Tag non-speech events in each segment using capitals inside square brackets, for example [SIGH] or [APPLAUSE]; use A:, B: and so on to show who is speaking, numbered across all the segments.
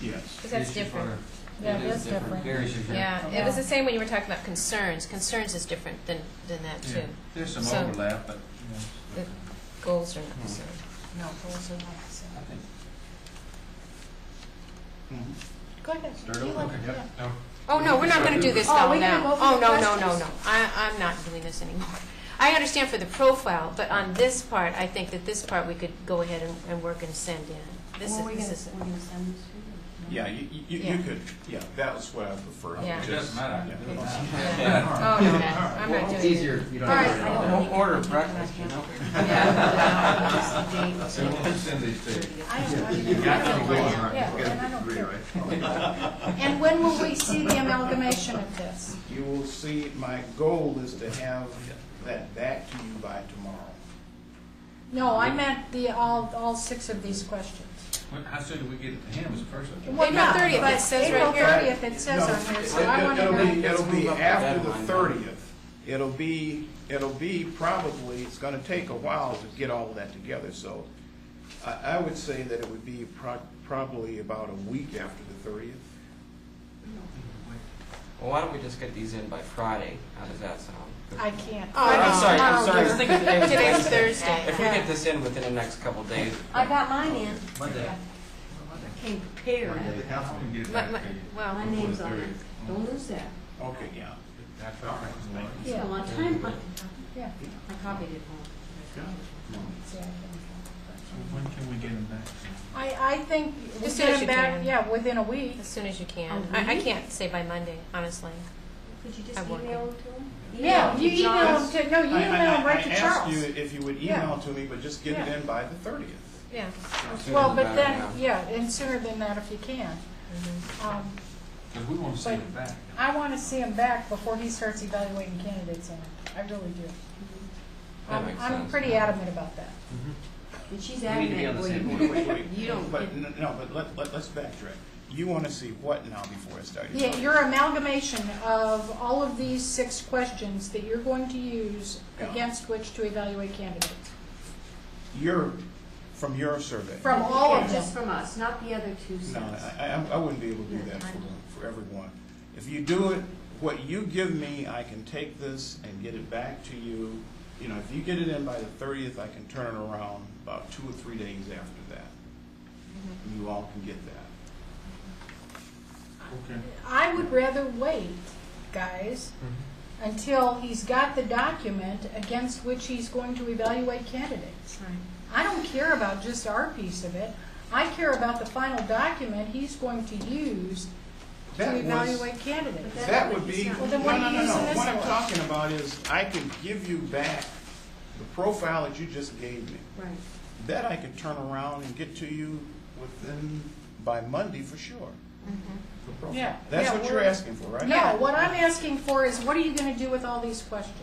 A: Yes.
B: Because that's different.
C: Yeah,
D: It is
C: that's different.
D: Areas of your-
B: Yeah, it was the same when you were talking about concerns. Concerns is different than, than that too.
D: Yeah. There's some
B: So-
D: overlap, but
B: Goals are not the
D: Hmm.
B: same.
C: No, those are not, so.
D: I think
C: Go ahead.
D: start
C: You
D: over.
C: want-
D: Yep.
C: yeah.
D: No.
B: Oh, no, we're not going to do this
C: Oh,
B: all
C: we're gonna
B: now.
C: go for
B: Oh,
C: the
B: no, no, no,
C: questions.
B: no. I, I'm not doing this anymore. I understand for the profile, but on this part, I think that this part we could go ahead and, and work and send in. This
C: Well,
B: is,
C: we're
B: this
C: gonna,
B: is,
C: we're gonna send this to you.
A: Yeah, you, you- you,
B: Yeah.
A: you could, yeah, that was what I preferred.
B: Yeah.
D: It
A: just-
D: doesn't matter. I
A: yeah.
D: can do it.
B: oh, okay, I'm not doing it.
E: It's easier if you don't.
B: All
E: have
B: right,
E: to worry about
C: I
E: it.
C: don't think-
D: Order breakfast, you know?
C: Yeah, no, just the date.
D: So we'll send these to you.
C: I don't, I don't- I don't mind. Yeah, and I don't care. And [LAUGHS] when will we see the amalgamation of this?
A: You will see, my goal is to have that back to you by tomorrow.
C: No, I meant the, all, all six of these questions.
D: When- How soon do we get it to him is the first one?
C: Well,
B: April
C: yeah,
B: 30th, it
C: but
B: says right here.
C: April thirtieth, it says on here, so I
A: It-
C: wanna
A: It'll be,
C: know.
A: it'll be
D: Let's move up the
A: after the
D: deadline.
A: thirtieth. It'll be, it'll be probably, it's gonna take a while to get all of that together, so I, I would say that it would be pro- probably about a week after the thirtieth.
F: Well, why don't we just get these in by Friday? How does that sound?
C: I can't.
B: Oh,
F: I'm sorry, I'm sorry. I was
C: Oh,
F: thinking today was
B: Today's
F: Thursday.
B: Thursday.
F: If we get this in within the next couple of days,
C: I got mine in,
D: Monday.
C: came prepared.
D: The council can get it
B: My-
D: back
B: my-
D: to you.
B: Well,
C: My name's on it, don't lose that.
A: Okay, yeah.
D: That's all right.
C: It's been a long time, but yeah, I copied it home.
G: When can we get them back?
C: I, I think we
B: As soon as
C: get
B: you
C: it back,
B: can.
C: yeah, within a week.
B: as soon as you
C: A
B: can. I, I
C: week?
B: can't say by Monday, honestly.
H: Could you just
B: I'm working.
H: email them to them?
C: Yeah, you email them to, no, you
A: I- I-
C: email them right
A: I-
C: to
A: I asked you
C: Charles.
A: if you would
C: Yeah.
A: email to me, but just get
C: Yeah.
A: it in by the thirtieth.
C: [LAUGHS]
B: Yeah.
F: sooner
C: Well,
F: the better,
C: but then, yeah, and sooner than that if you can. Um,
D: Because we want to send it back.
C: I want to see him back before he starts evaluating candidates in it. I really do.
F: That
C: I'm-
F: makes
C: I'm
F: sense.
C: pretty adamant about that.
H: And she's
F: We need to be on
H: adamant,
F: the
H: well,
F: same
H: you,
F: page.
C: [LAUGHS]
H: you don't
A: But,
H: get-
A: n- no, but let, let, let's backtrack. You wanna see what now before I start? your
C: Yeah,
A: talk?
C: your amalgamation of all of these six questions that you're going to use against which to evaluate candidates,
A: Your, from your survey.
C: from all
H: Yeah,
C: of
H: Just
C: them.
H: from us, not the other two
A: No,
H: sets.
A: I, I, I wouldn't be able to do that for, for everyone. If you do it, what you give me, I can take this and get it back to you. You know, if you get it in by the thirtieth, I can turn it around about two or three days after that.
C: Mm-hmm.
A: And You all can get that.
G: Okay.
C: I would rather wait, guys,
F: Mm-hmm.
C: until he's got the document against which he's going to evaluate candidates. I don't care about just our piece of it. I care about the final document he's going to use to
A: That was-
C: evaluate candidates.
A: That would be, no,
C: Well,
A: no,
C: then what are
A: no,
C: you
A: no.
C: using this
A: What I'm
C: for?
A: talking about is I can give you back the profile that you just gave me.
H: Right.
A: That I could turn around and get to you within, by Monday for sure. The profile.
C: Yeah.
A: That's
C: Yeah,
A: what you're
C: we're-
A: asking for, right?
C: No, what I'm asking for is what are you going to do with all these questions?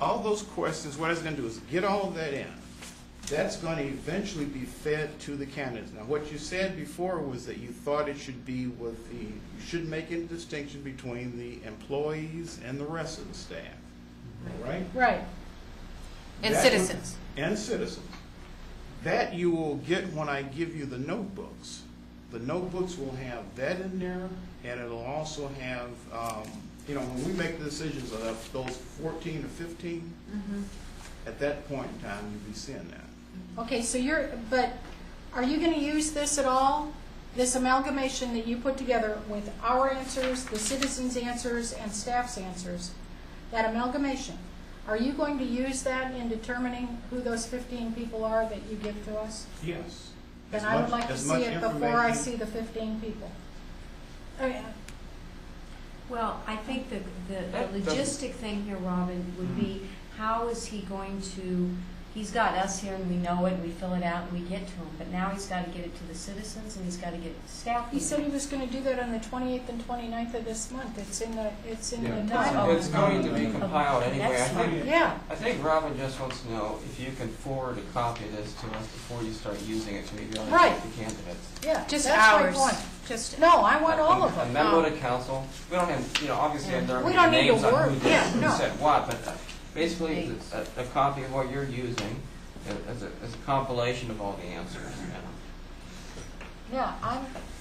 A: all those questions, what I was gonna do is get all of that in. That's gonna eventually be fed to the candidates. Now, what you said before was that you thought it should be with the, you should make a distinction between the employees and the rest of the staff, right?
C: Right.
B: And
A: That-
B: citizens.
A: And citizens. That you will get when I give you the notebooks. The notebooks will have that in there, and it'll also have, um, you know, when we make the decisions of those fourteen or fifteen,
C: Mm-hmm.
A: at that point in time, you'll be seeing that.
C: Okay, so you're, but are you going to use this at all? This amalgamation that you put together with our answers, the citizens' answers, and staff's answers, that amalgamation, are you going to use that in determining who those 15 people are that you give to us?
A: Yes.
C: Then
A: As
C: I would
A: much-
C: like to
A: as
C: see
A: much
C: it before I
A: information-
C: see the 15 people. I mean,
H: Well, I think the, the-
F: That
H: the
F: doesn't- Mm-hmm.
H: logistic thing here, Robin, would be, how is he going to, he's got us here and we know it, and we fill it out and we get to him, but now he's gotta get it to the citizens and he's gotta get it to staff.
C: He said he was going to do that on the 28th and 29th of this month. It's in the, it's in the
F: Yeah,
C: memo.
F: It's going to be compiled anyway. I
H: That's
F: think,
C: Yeah,
F: I think Robin just wants to know if you can forward a copy of this to us before you start using it, so we can
C: Right.
F: evaluate the candidates.
C: yeah.
B: Just
C: that's my
B: hours.
C: point.
B: Just,
C: No, I want all of
F: A
C: them. Oh.
F: memo to council. We don't have, you know, obviously, there
C: We
F: are
C: don't need to
F: names on who
C: work. Yeah,
F: did, who
C: no.
F: said what, but uh, basically, it's a, a copy of what you're using uh, as a, as a compilation of all the answers, you know.
C: Yeah, I'm,